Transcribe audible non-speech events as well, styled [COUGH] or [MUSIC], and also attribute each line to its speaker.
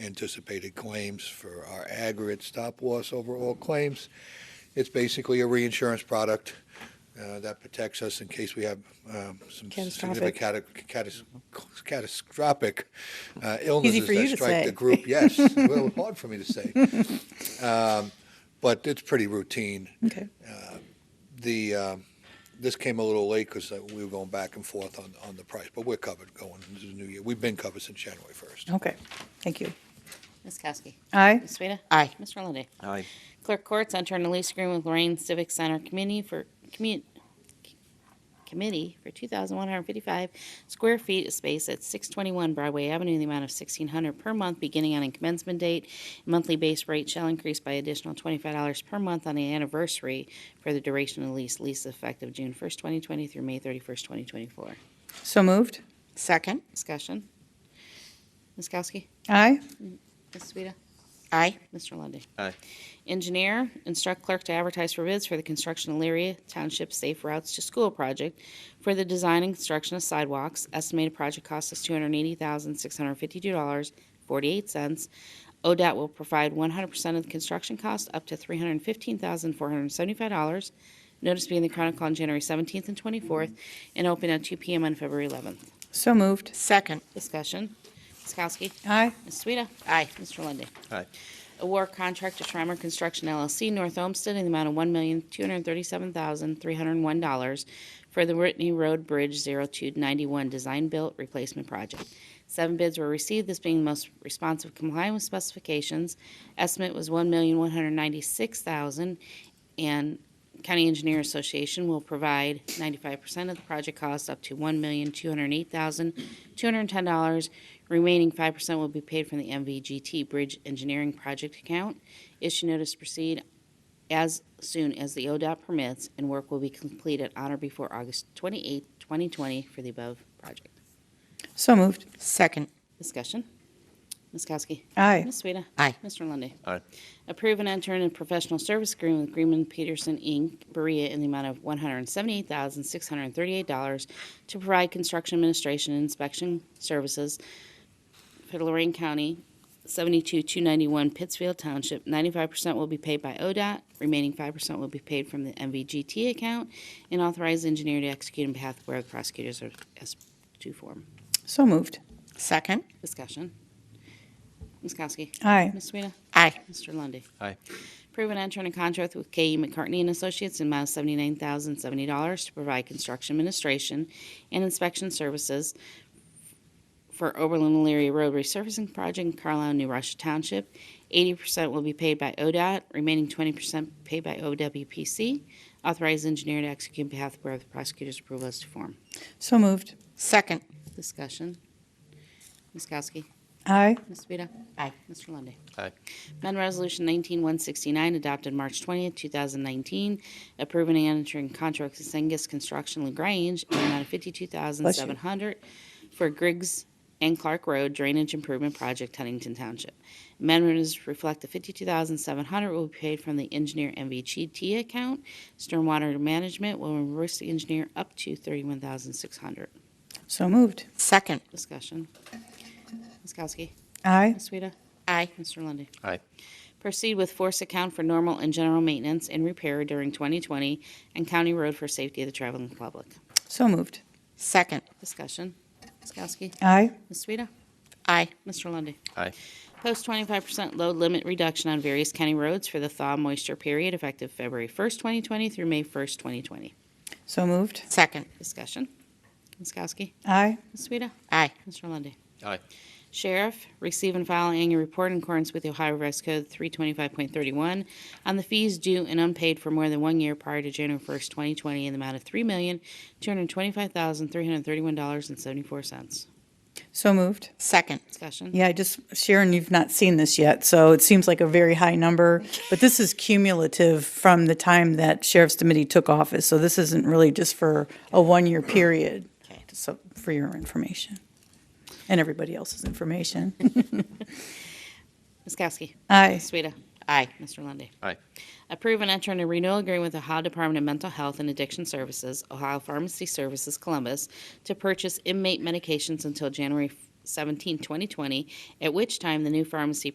Speaker 1: anticipated claims for our aggregate stop loss over all claims. It's basically a reinsurance product uh, that protects us in case we have um, some significant
Speaker 2: Catastrophic.
Speaker 1: cata- catas- catastrophic uh, illnesses
Speaker 2: for you
Speaker 1: that
Speaker 2: to
Speaker 1: strike the
Speaker 2: say.
Speaker 1: group.
Speaker 2: [LAUGHS]
Speaker 1: Yes, a little hard for me to say. Um, But it's pretty routine.
Speaker 2: Okay.
Speaker 1: The, um, this came a little late because we were going back and forth on, on the price, but we're covered going into the new year. We've been covered since January 1st.
Speaker 2: Okay. Thank you.
Speaker 3: Ms. Kowski.
Speaker 2: Aye.
Speaker 3: Ms. Sueda.
Speaker 4: Aye.
Speaker 3: Mr. Lundy.
Speaker 5: Aye.
Speaker 3: Clerk Courts enter a lease agreement with Lorraine Civic Center Committee for, commu- Committee for 2,155 square feet of space at 621 Broadway Avenue in the amount of 1,600 per month beginning on a commencement date. Monthly base rate shall increase by additional $25 per month on the anniversary for the duration of the lease. Lease effective June 1st, 2020 through May 31st, 2024.
Speaker 2: So moved.
Speaker 4: Second.
Speaker 3: Discussion. Ms. Kowski.
Speaker 2: Aye.
Speaker 3: Ms. Sueda.
Speaker 4: Aye.
Speaker 3: Mr. Lundy.
Speaker 5: Aye.
Speaker 3: Engineer, instruct clerk to advertise for bids for the construction of Elyria Township Safe Routes to School project for the design and construction of sidewalks. Estimated project cost is two hundred eighty thousand, six hundred fifty-two dollars, forty-eight cents. ODOT will provide one hundred percent of the construction cost up to three hundred fifteen thousand, four hundred seventy-five dollars. Notice being in the Chronicle on January seventeenth and twenty-fourth and open at two PM on February eleventh.
Speaker 2: So moved.
Speaker 4: Second.
Speaker 3: Discussion. Ms. Kowski.
Speaker 2: Aye.
Speaker 3: Ms. Sueda.
Speaker 4: Aye.
Speaker 3: Mr. Lundy.
Speaker 5: Aye.
Speaker 3: Award contract to Schremer Construction LLC, North Olmsted, in the amount of one million, two hundred and thirty-seven thousand, three hundred and one dollars for the Whitney Road Bridge zero-two ninety-one design-built replacement project. Seven bids were received, this being the most responsive complying with specifications. Estimate was one million, one hundred and ninety-six thousand, and County Engineer Association will provide ninety-five percent of the project cost up to one million, two hundred and eight thousand, two hundred and ten dollars. Remaining five percent will be paid from the MVGT Bridge Engineering Project account. Issue notice to proceed as soon as the ODOT permits, and work will be completed on or before August twenty-eighth, twenty twenty for the above project.
Speaker 2: So moved.
Speaker 4: Second.
Speaker 3: Discussion? Ms. Kowski?
Speaker 2: Aye.
Speaker 3: Ms. Sueda?
Speaker 4: Aye.
Speaker 3: Mr. Lundy.
Speaker 5: Aye.
Speaker 3: Approve and enter in a professional service agreement with Greenman Peterson, Inc., Berea, in the amount of $178,638 to provide construction administration and inspection services for Lorraine County, 72291 Pittsfield Township. 95% will be paid by ODOT, remaining 5% will be paid from the MVGT account, and authorize engineer to execute on behalf of where the prosecutors are as to form.
Speaker 2: So moved.
Speaker 4: Second.
Speaker 3: Discussion. Ms. Kowski.
Speaker 2: Aye.
Speaker 3: Ms. Sueda.
Speaker 4: Aye.
Speaker 3: Mr. Lundy.
Speaker 5: Aye.
Speaker 3: Approve and enter in a contract with K.E. McCartney and Associates in amount of seventy-nine thousand seventy dollars to provide construction administration and inspection services for Oberlin Leary Road resurfacing project in Carlisle, New Russia Township. Eighty percent will be paid by ODOT, remaining twenty percent paid by OWPC. Authorized engineer to execute on behalf of Board of Prosecutors' approval as to form.
Speaker 2: So moved.
Speaker 4: Second.
Speaker 3: Discussion. Ms. Kowski.
Speaker 2: Aye.
Speaker 3: Ms. Sueda.
Speaker 4: Aye.
Speaker 3: Mr. Lundy.
Speaker 5: Aye.
Speaker 3: Amend Resolution 19169, adopted March 20th, 2019, approving and entering contract with Sengus Construction LaGrange in the amount of 52700 for Griggs and Clark Road Drainage Improvement Project, Huntington Township. Amendments reflect the 52700 will be paid from the engineer MVGT account. Stormwater management will reimburse the engineer up to 31600
Speaker 2: So moved.
Speaker 4: Second.
Speaker 3: Discussion. Ms. Kowski.
Speaker 2: Aye.
Speaker 3: Ms. Sueda.
Speaker 4: Aye.
Speaker 3: Mr. Lundy.
Speaker 5: Aye.
Speaker 3: Proceed with force account for normal and general maintenance and repair during 2020 and county road for safety of the traveling public.
Speaker 2: So moved.
Speaker 4: Second.
Speaker 3: Discussion. Ms. Kowski.
Speaker 2: Aye.
Speaker 3: Ms. Sueda.
Speaker 4: Aye.
Speaker 3: Mr. Lundy.
Speaker 5: Aye.
Speaker 3: Post 25% load limit reduction on various county roads for the thaw moisture period effective February 1st, 2020 through May 1st, 2020.
Speaker 2: So moved.
Speaker 4: Second.
Speaker 3: Discussion. Ms. Kowski.
Speaker 2: Aye.
Speaker 3: Ms. Sueda.
Speaker 4: Aye.
Speaker 3: Mr. Lundy.
Speaker 5: Aye.
Speaker 3: Sheriff, receive and file annual report in accordance with the Ohio Revised Code 325.31 on the fees due and unpaid for more than one year prior to January 1st, 2020, in the amount of $3,225,331.74.
Speaker 2: So moved.
Speaker 4: Second.
Speaker 3: Discussion?
Speaker 2: Yeah, I just, Sharon, you've not seen this yet, so it seems like a very high number, but this is cumulative from the time that Sheriff's Committee took office, so this isn't really just for a one-year period.
Speaker 4: Okay.
Speaker 2: So, for your information and everybody else's information.
Speaker 3: Ms. Kowski?
Speaker 2: Aye.
Speaker 3: Ms. Sueda?
Speaker 4: Aye.
Speaker 3: Mr. Lundy.
Speaker 5: Aye.
Speaker 3: Approve and enter in a renewal agreement with Ohio Department of Mental Health and Addiction Services, Ohio Pharmacy Services, Columbus, to purchase inmate medications until January 17, 2020, at which time the new pharmacy